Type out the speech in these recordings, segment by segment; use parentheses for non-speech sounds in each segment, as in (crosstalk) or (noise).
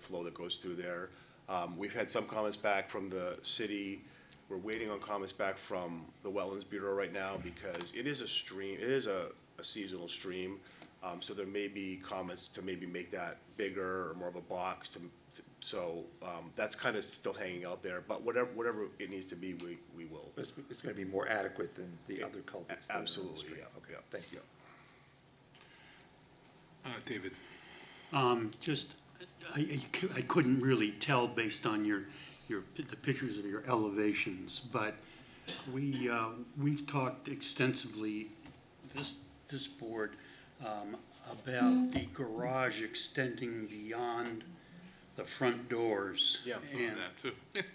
flow that goes through there. Um, We've had some comments back from the city. We're waiting on comments back from the Wetlands Bureau right now because it is a stream, it is a a seasonal stream. Um, So there may be comments to maybe make that bigger or more of a box to, to- so um, that's kind of still hanging out there. But whatever, whatever it needs to be, we, we will. It's, it's gonna be more adequate than the other culverts. that are in the Absolutely, stream. yeah, Okay, yeah. thank you. Uh, David, Um, just, I, I cou- I couldn't really tell based on your, your, pi- the pictures of your elevations, but we, uh, we've talked extensively, this, this board, um, Mm-hmm. about the garage extending beyond the front doors. Yeah, some of And- that too. That's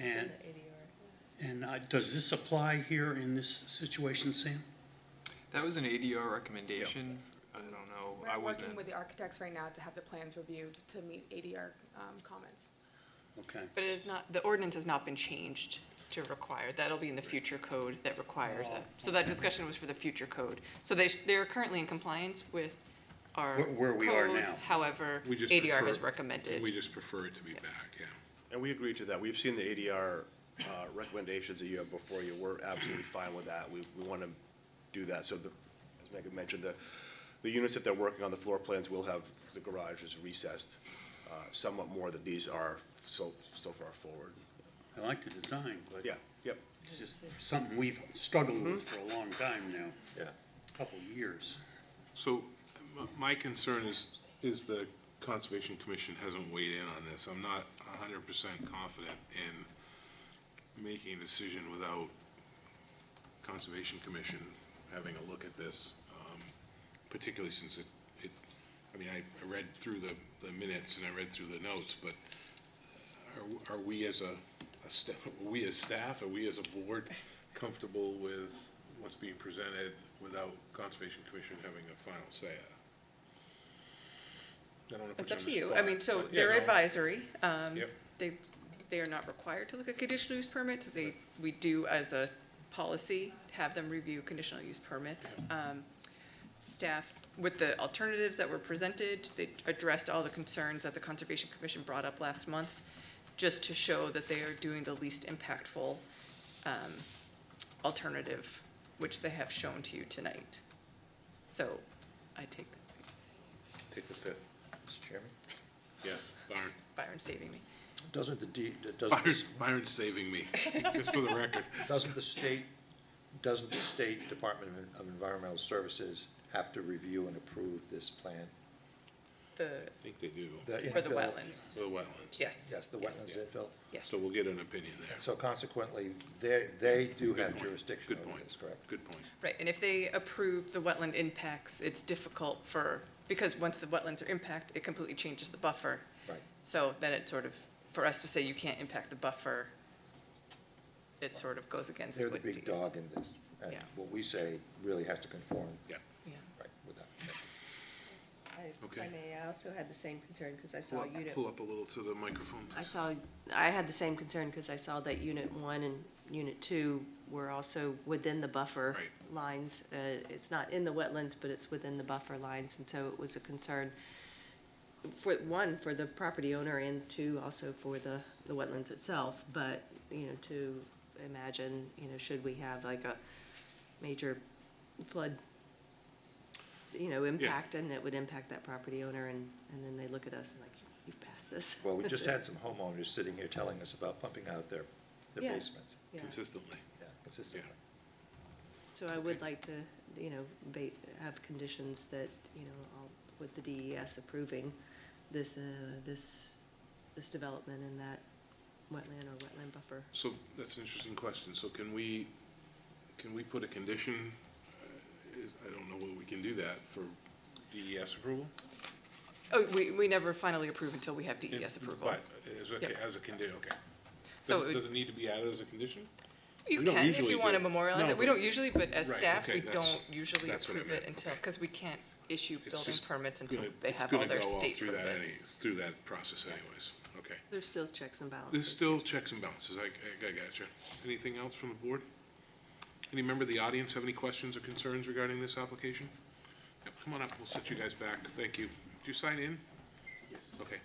in And- the ADR. And, uh, does this apply here in this situation, Sam? That was an ADR recommendation. I don't know, I We're wasn't. working with the architects right now to have the plans reviewed to meet ADR um, comments. Okay. But it is not, the ordinance has not been changed to require, that'll be in the future code that requires that. So that discussion was for the future code. So they, sh- they're currently in compliance with our. Where- where we are code, now. However, We just ADR prefer- has recommended. We just prefer it to be back, yeah. And we agreed to that. We've seen the ADR uh, recommendations that you have before you. We're absolutely fine with that. We, we want to do that. So the, as Megan mentioned, the, the units that they're working on, the floor plans will have, the garage is recessed uh, somewhat more than these are so, so far forward. I like the design, but Yeah, yep. it's just something we've struggled with for a long time now, Yeah. couple years. So m- my concern is, is the Conservation Commission hasn't weighed in on this. I'm not hundred percent confident in making a decision without Conservation Commission having a look at this, um, particularly since it, it, I mean, I I read through the, the minutes and I read through the notes, but are, are we as a, a sta- (laughs) are we as staff, are we as a board comfortable with what's being presented without Conservation Commission having a final say? I don't wanna put It's up on to the you. I spot, mean, so but- Yeah, they're no. advisory. Um, Yep. They, they are not required to look at conditional use permits. They, we do as a policy, have them review conditional use permits. Um, Staff, with the alternatives that were presented, they addressed all the concerns that the Conservation Commission brought up last month, just to show that they are doing the least impactful um, alternative, which they have shown to you tonight. So I take, Take the fifth. Mr. Chairman? Yes, Byron. Byron saving me. Doesn't the D, (laughs) doesn't, Byron, the- Byron's saving me, just for the record. doesn't the state, doesn't the state Department of- of Environmental Services have to review and approve this plan? The I think they do, For the infill- wetlands, the wetlands. yes. Yes, the wetlands infill. Yes. So we'll get an opinion there. So consequently, they, they do Good have point. jurisdiction Good over point. this, correct? Good point. Right, and if they approve the wetland impacts, it's difficult for, because once the wetlands are impacted, it completely changes the buffer. Right. So then it sort of, for us to say you can't impact the buffer, it sort of goes against They're what E the DES. big dog in this, and Yeah. what we say really has to conform, Yeah. Yeah. right, with that. I- if Okay. I may, I also had the same concern because I Pull saw up, unit. pull up a little to the microphone, I please. saw, I had the same concern because I saw that unit one and unit two were also within the buffer Right. lines. Uh, It's not in the wetlands, but it's within the buffer lines, and so it was a concern for, one, for the property owner, and two, also for the, the wetlands itself. But, you know, to imagine, you know, should we have like a major flood, you know, impact, and it would impact that property owner, and, and then they look at us and like, you've passed this. Well, we (laughs) just had some homeowners sitting here telling us about pumping out their, their Yeah. basements, Yeah. Consistently. yeah, consistently. So I would like to, you know, ba- have conditions that, you know, all- with the DES approving this, uh, this, this development in that wetland or wetland buffer. So that's an interesting question. So can we, can we put a condition? Uh, is- I don't know whether we can do that for DES approval. Oh, we, we never finally approve until we have DES approval. But as Yep. a, as a condition, okay. So Does it it, would- does it need to be added as a condition? You We don't can if usually you want to do. memorialize No, it. We but- don't usually, but as Right, staff, okay, we that's- don't usually that's what I approve it meant, until, okay. because we can't issue It's building just permits until gonna- they it's have gonna all their go all state through that any- permits. Through that process anyways. Okay. There's still checks and There's balances. still checks and balances. I, I I gotcha. Anything else from the board? Any member of the audience have any questions or concerns regarding this application? Yep, Come on up. We'll set you guys back. Thank you. Did you sign in? Yes. Okay.